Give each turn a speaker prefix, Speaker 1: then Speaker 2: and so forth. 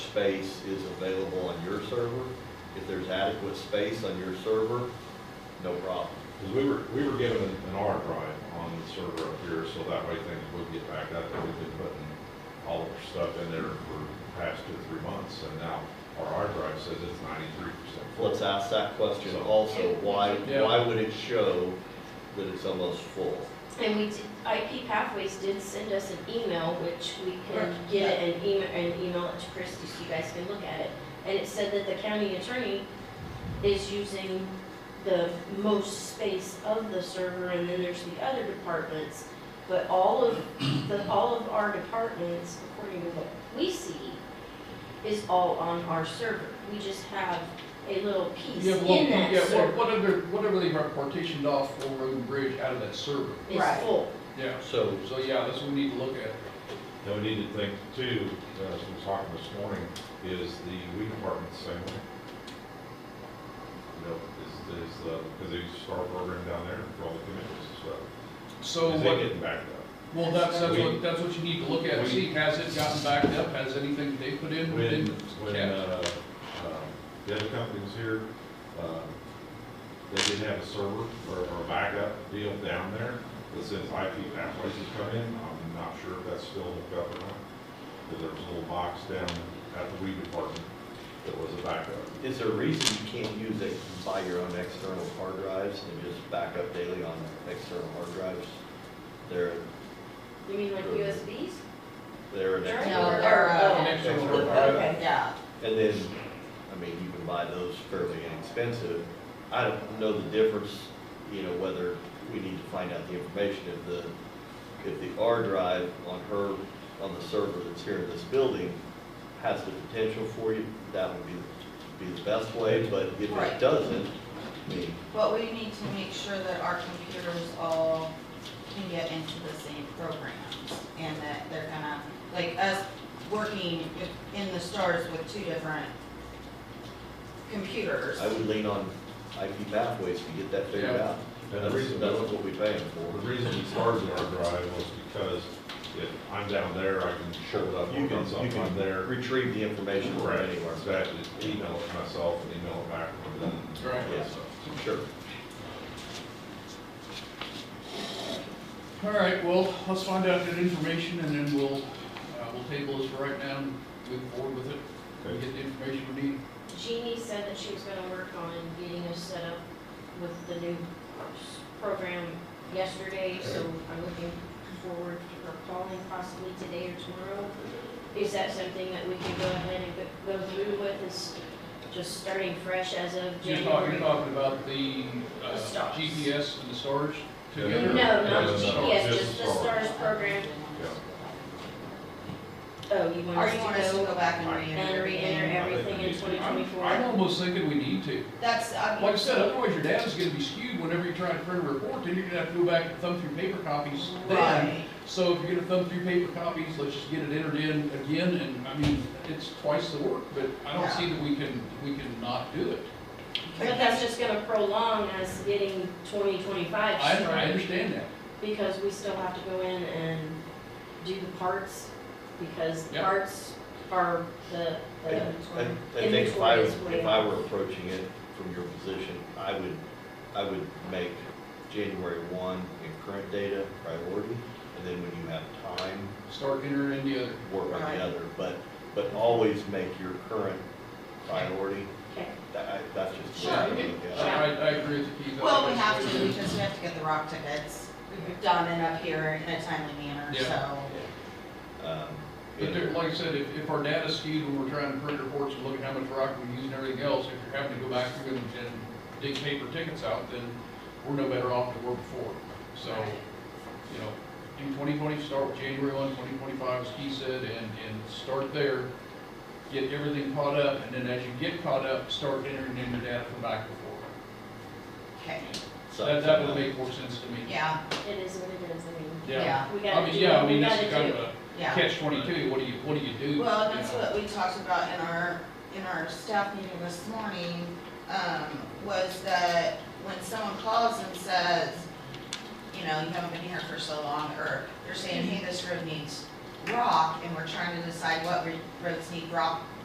Speaker 1: space is available on your server. If there's adequate space on your server, no problem.
Speaker 2: Because we were, we were given an R drive on the server up here, so that way things would get backed up. We've been putting all of our stuff in there for the past two, three months, and now our R drive says it's ninety-three percent full.
Speaker 1: Let's ask that question also, why,
Speaker 3: Yeah.
Speaker 1: why would it show that it's almost full?
Speaker 4: And we, did- IP Pathways did send us an email, which we can get an email, an email it to Christie so you guys can look at it. And it said that the county attorney is using the most space of the server, and then there's the other departments. But all of, the, all of our departments, according to what we see, is all on our server. We just have a little piece
Speaker 3: Yeah, well,
Speaker 4: in that
Speaker 3: yeah, what-
Speaker 4: server
Speaker 3: what under- Whatever they were partitioned off for Road and Bridge out of that server.
Speaker 4: is
Speaker 5: Right.
Speaker 4: full.
Speaker 3: Yeah.
Speaker 1: So
Speaker 3: So, yeah, that's what we need to look at.
Speaker 2: Now, we need to think too, uh, as we were talking this morning, is the weed department the same way? You know, is, is, uh, because they start program down there for all the commitments as well.
Speaker 3: So
Speaker 2: Is
Speaker 3: what-
Speaker 2: they getting backed up?
Speaker 3: well, that's, that's
Speaker 2: We-
Speaker 3: what, that's what you need to look at, and
Speaker 2: we-
Speaker 3: see, has it gotten backed up, has anything they put in
Speaker 2: When,
Speaker 3: been
Speaker 2: when,
Speaker 3: kept?
Speaker 2: uh, um, the other company was here, um, they did have a server or, or a backup deal down there that says IP pathways has come in. I'm not sure if that's still hooked up or not. But there was a little box down at the weed department that was a backup.
Speaker 1: is there a reason you can't use it, buy your own external hard drives and just back up daily on external hard drives? They're,
Speaker 4: You mean like USBs?
Speaker 1: they're an
Speaker 4: No,
Speaker 1: external.
Speaker 5: they're, uh,
Speaker 4: Oh,
Speaker 3: An external
Speaker 1: external
Speaker 3: drive.
Speaker 1: drive.
Speaker 5: Yeah,
Speaker 1: And then, I mean, you can buy those fairly inexpensive. I don't know the difference, you know, whether we need to find out the information if the, if the R drive on her, on the server that's here in this building has the potential for you, that would be, be the best way, but if it
Speaker 5: Right.
Speaker 1: doesn't, I mean,
Speaker 5: but we need to make sure that our computers all can get into the same programs and that they're gonna, like us working if- in the stars with two different computers.
Speaker 1: I would lean on IP pathways to get that figured
Speaker 3: Yeah.
Speaker 1: out.
Speaker 2: And the
Speaker 1: That's,
Speaker 2: reason,
Speaker 1: that's
Speaker 2: the
Speaker 1: what we pay them for.
Speaker 2: reason we started our drive was because if I'm down there, I can show it up
Speaker 1: You
Speaker 2: on
Speaker 1: can, you
Speaker 2: something
Speaker 1: can
Speaker 2: there.
Speaker 1: retrieve the information from
Speaker 2: Correct,
Speaker 1: anywhere.
Speaker 2: exactly. Email it to myself and email it back to them.
Speaker 3: Right.
Speaker 1: Yeah. Sure.
Speaker 3: All right, well, let's find out that information, and then we'll, uh, we'll table this for right now, and move forward with it,
Speaker 2: Okay.
Speaker 3: and get the information we need.
Speaker 4: Jeannie said that she was gonna work on getting us set up with the new s- program yesterday, so I'm looking forward to her calling possibly today or tomorrow. Is that something that we can go ahead and go- go through with, is just starting fresh as of
Speaker 3: You're talking, you're
Speaker 4: January?
Speaker 3: talking about the uh,
Speaker 4: The stars.
Speaker 3: GPS and the storage
Speaker 4: No,
Speaker 3: together?
Speaker 4: not
Speaker 2: No, no, no,
Speaker 4: the GPS,
Speaker 2: just
Speaker 4: just
Speaker 2: the
Speaker 4: the
Speaker 2: stars.
Speaker 4: STARS program. Oh, you want
Speaker 5: Or
Speaker 4: us
Speaker 5: you want us to
Speaker 4: to
Speaker 5: go
Speaker 4: go
Speaker 5: back and
Speaker 4: and
Speaker 5: re-enter
Speaker 4: re-enter
Speaker 5: everything?
Speaker 4: everything in twenty
Speaker 3: I'm
Speaker 4: twenty-four?
Speaker 3: almost thinking we need to.
Speaker 5: That's, I mean.
Speaker 3: Like I said, otherwise your data's gonna be skewed whenever you try to print a report, then you're gonna have to go back and thumb through paper copies then.
Speaker 5: Right,
Speaker 3: So if you're gonna thumb through paper copies, let's just get it entered in again, and, I mean, it's twice the work, but I don't
Speaker 5: Yeah.
Speaker 3: see that we can, we can not do it.
Speaker 4: But that's just gonna prolong us getting twenty twenty-five
Speaker 3: I,
Speaker 4: started.
Speaker 3: I understand that.
Speaker 4: Because we still have to go in and do the parts, because the
Speaker 3: Yeah.
Speaker 4: parts are the, the,
Speaker 1: I, I think if I,
Speaker 4: Inventory is way
Speaker 1: if I were approaching it from your position, I would, I would make January one and current data priority, and then when you have time,
Speaker 3: Start entering in the other.
Speaker 1: work on
Speaker 5: Right.
Speaker 1: the other, but, but always make your current priority,
Speaker 4: okay,
Speaker 1: that, I- that's just. the way
Speaker 3: I,
Speaker 1: I
Speaker 3: I,
Speaker 1: look at it.
Speaker 3: I agree with you, Keith. I
Speaker 5: well, we
Speaker 3: think
Speaker 5: have
Speaker 3: that's the
Speaker 5: to,
Speaker 3: way
Speaker 5: because we have to get the rock tickets done and up here in a timely manner,
Speaker 3: Yeah.
Speaker 5: so.
Speaker 1: Um,
Speaker 3: But there,
Speaker 1: and-
Speaker 3: like I said, if, if our data's skewed when we're trying to print reports and look at how much rock we use and everything else, if you're having to go back through and, and dig paper tickets out, then we're no better off than we were before. So, you know, in twenty twenty, start with January one, twenty twenty-five, as Keith said, and, and start there. Get everything caught up, and then as you get caught up, start entering in your data from back before.
Speaker 5: Okay,
Speaker 1: so-
Speaker 3: That, that would make more sense to me.
Speaker 5: yeah,
Speaker 4: it is what it is, I mean,
Speaker 5: yeah,
Speaker 4: we
Speaker 3: I
Speaker 4: gotta do,
Speaker 3: mean, yeah, I
Speaker 4: we
Speaker 3: mean, this
Speaker 4: gotta
Speaker 3: is kind of
Speaker 4: do.
Speaker 3: a
Speaker 5: yeah.
Speaker 3: catch twenty-two, what do you, what do you do?
Speaker 5: Well,
Speaker 3: you
Speaker 5: and that's
Speaker 3: know?
Speaker 5: what we talked about in our, in our staff meeting this morning, um, was that when someone calls and says, you know, you haven't been here for so long, or they're saying, hey, this road needs rock, and we're trying to decide what re- roads need rock